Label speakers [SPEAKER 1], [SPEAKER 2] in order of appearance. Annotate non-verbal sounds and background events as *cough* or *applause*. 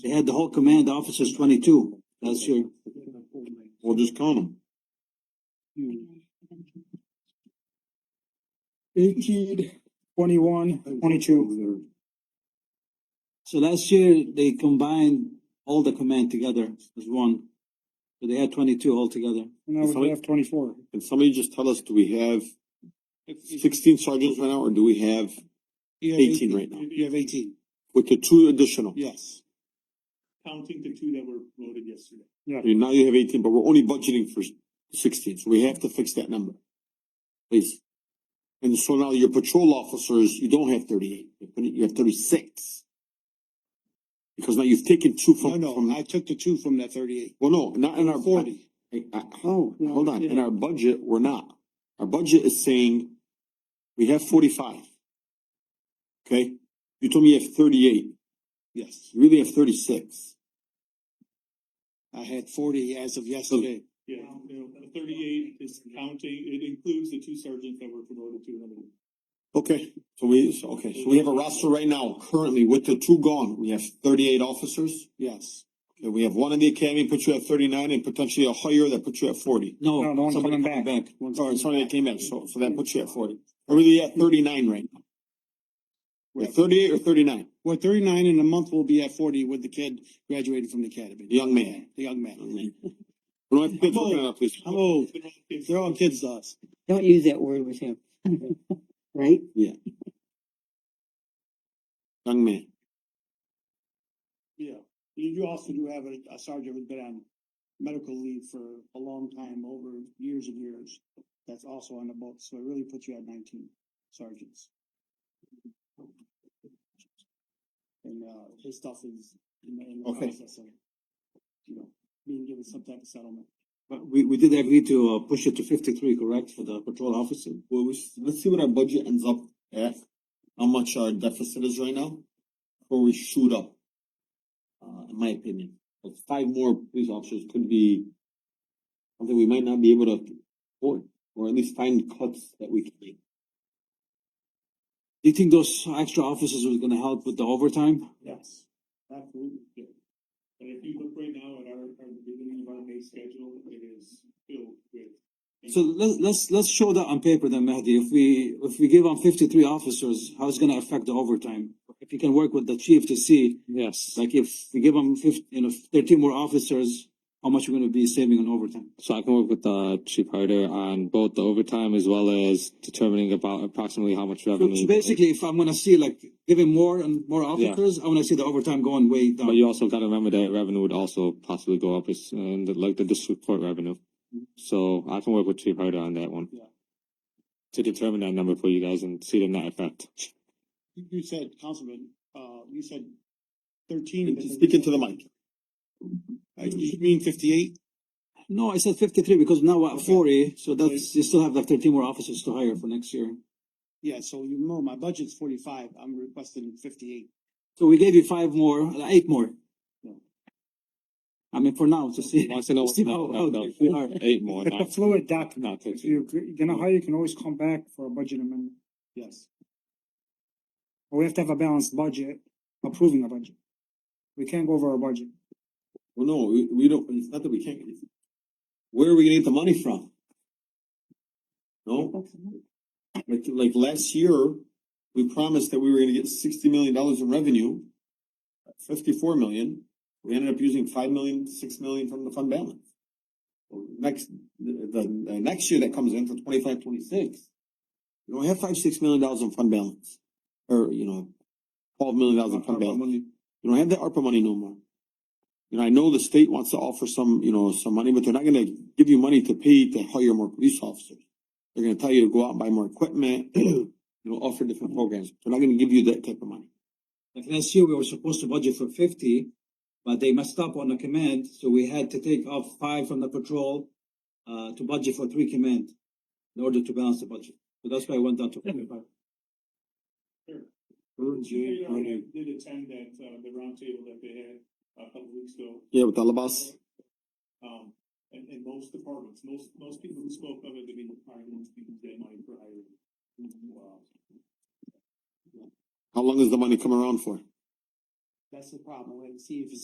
[SPEAKER 1] They had the whole command officers twenty-two, that's your,
[SPEAKER 2] We'll just count them.
[SPEAKER 3] Eighteen, twenty-one, twenty-two.
[SPEAKER 1] so last year they combined all the command together as one. So they had twenty-two altogether.
[SPEAKER 3] And now we have twenty-four.
[SPEAKER 2] Can somebody just tell us, do we have sixteen sergeants right now, or do we have,
[SPEAKER 4] You have
[SPEAKER 2] 18 right now.
[SPEAKER 4] You have eighteen,
[SPEAKER 2] with the two additional?
[SPEAKER 4] yes.
[SPEAKER 5] counting the two that were voted yesterday.
[SPEAKER 2] You- Now you have eighteen, but we're only budgeting for sixteen, so we have to fix that number. Please. And so now your patrol officers, you don't have thirty-eight, you put it- you have thirty-six. Because now you've taken two
[SPEAKER 4] No,
[SPEAKER 2] from,
[SPEAKER 4] no,
[SPEAKER 2] from,
[SPEAKER 4] I took the two from that thirty-eight.
[SPEAKER 2] well, no, not in our.
[SPEAKER 4] Forty.
[SPEAKER 2] I, I, oh,
[SPEAKER 4] No,
[SPEAKER 2] hold on, in
[SPEAKER 4] yeah.
[SPEAKER 2] our budget, we're not. Our budget is saying, we have forty-five. Okay, you told me you have thirty-eight,
[SPEAKER 4] Yes,
[SPEAKER 2] you really have thirty-six.
[SPEAKER 4] I had forty as of yesterday.
[SPEAKER 5] Yeah, you know, the thirty-eight is counting, it includes the two sergeants that were promoted to another.
[SPEAKER 2] Okay, so we, so- okay, so we have a roster right now, currently with the two gone, we have thirty-eight officers.
[SPEAKER 4] Yes,
[SPEAKER 2] Okay, we have one in the academy, put you at thirty-nine, and potentially a hire that puts you at forty.
[SPEAKER 3] No,
[SPEAKER 1] No,
[SPEAKER 3] no one's
[SPEAKER 2] Somebody
[SPEAKER 3] coming back.
[SPEAKER 2] back. Sorry, somebody that came in, so, so that puts you at forty. We're really at thirty-nine right now. We're at thirty-eight or thirty-nine,
[SPEAKER 4] we're thirty-nine in a month, we'll be at forty with the kid graduating from the academy.
[SPEAKER 2] The young man.
[SPEAKER 4] The young man.
[SPEAKER 2] *laughs* We don't have kids looking at us, please.
[SPEAKER 4] I'm old, they're all kids to us.
[SPEAKER 6] Don't use that word with him. Right?
[SPEAKER 2] young man.
[SPEAKER 4] Yeah, you, you also do have a, a sergeant who's been on medical leave for a long time, over years and years. That's also on the books, so it really puts you at nineteen sergeants. And, uh, his stuff is in the, in the
[SPEAKER 2] Okay.
[SPEAKER 4] process of, you know, being given some type of settlement.
[SPEAKER 1] but we, we did agree to, uh, push it to fifty-three, correct, for the patrol officer?
[SPEAKER 2] Well, we, s- let's see what our budget ends up at, how much our deficit is right now, before we shoot up. Uh, in my opinion, but five more police officers could be something we might not be able to afford, or at least find cuts that we can make.
[SPEAKER 1] Do you think those extra officers are gonna help with the overtime?
[SPEAKER 4] Yes, absolutely.
[SPEAKER 5] Yeah. And if you look right now at our, our beginning of our May schedule, it is filled with.
[SPEAKER 1] So let's, let's, let's show that on paper then, Mehdi. If we, if we give them fifty-three officers, how's it gonna affect the overtime? If you can work with the chief to see,
[SPEAKER 7] Yes,
[SPEAKER 1] like if we give them fif- you know, thirteen more officers, how much we're gonna be saving on overtime?
[SPEAKER 7] so I can work with uh Chief Harder on both the overtime as well as determining about approximately how much
[SPEAKER 1] So- So
[SPEAKER 7] revenue.
[SPEAKER 1] basically, if I'm gonna see like giving more and more officers, I wanna see the overtime going way
[SPEAKER 7] But
[SPEAKER 1] down.
[SPEAKER 7] you also gotta remember that revenue would also possibly go up, it's, and like the district court revenue. So I can work with Chief Harder on that one.
[SPEAKER 4] Yeah.
[SPEAKER 7] To determine that number for you guys and see the net effect.
[SPEAKER 4] You, you said, Councilman, uh, you said thirteen.
[SPEAKER 2] Speak into the mic.
[SPEAKER 4] Uh, you mean fifty-eight?
[SPEAKER 1] No, I said fifty-three because now we're at
[SPEAKER 4] Okay.
[SPEAKER 1] forty, so that's, you still have like thirteen more officers to hire for next year.
[SPEAKER 4] Yeah, so you know, my budget's forty-five, I'm requesting fifty-eight.
[SPEAKER 1] So we gave you five more, uh, eight more.
[SPEAKER 4] No.
[SPEAKER 1] I mean, for now, to see.
[SPEAKER 7] Wants to know-
[SPEAKER 1] see how-
[SPEAKER 7] no, no,
[SPEAKER 1] how we are.
[SPEAKER 7] Eight more,
[SPEAKER 1] *laughs*
[SPEAKER 3] It's a
[SPEAKER 7] not,
[SPEAKER 3] fluid document.
[SPEAKER 7] not
[SPEAKER 3] If
[SPEAKER 7] thirteen.
[SPEAKER 3] you, agree- you know how you can always come back for a budget amendment.
[SPEAKER 4] Yes.
[SPEAKER 3] But we have to have a balanced budget, approving a budget. We can't go over our budget.
[SPEAKER 2] Well, no, we, we don't, it's not that we can't. get it. Where are we gonna get the money from? No? Like, like last year, we promised that we were gonna get sixty million dollars in revenue. Fifty-four million, we ended up using five million, six million from the fund balance. Next, the, the, the next year that comes in for twenty-five, twenty-six. We don't have five, six million dollars in fund balance, or, you know, twelve million dollars in fund balance. You don't have that ARPA money no more. You know, I know the state wants to offer some, you know, some money, but they're not gonna give you money to pay to hire more police officers. They're gonna tell you to go out and buy more equipment, *clears throat* you know, offer different programs. They're not gonna give you that type of money.
[SPEAKER 1] Like last year, we were supposed to budget for fifty, but they messed up on the command, so we had to take off five from the patrol uh, to budget for three command in order to balance the budget. So that's why I went down to forty-five.
[SPEAKER 5] You know, I did attend that, uh, the roundtable that they had a couple weeks ago.
[SPEAKER 2] Yeah, with Alabas.
[SPEAKER 5] Um, and, and most departments, most, most people who spoke of it, they've been hiring, most people get money for hiring.
[SPEAKER 4] uh,
[SPEAKER 5] Wow.
[SPEAKER 2] How long does the money come around for?
[SPEAKER 4] That's the problem, and see if it's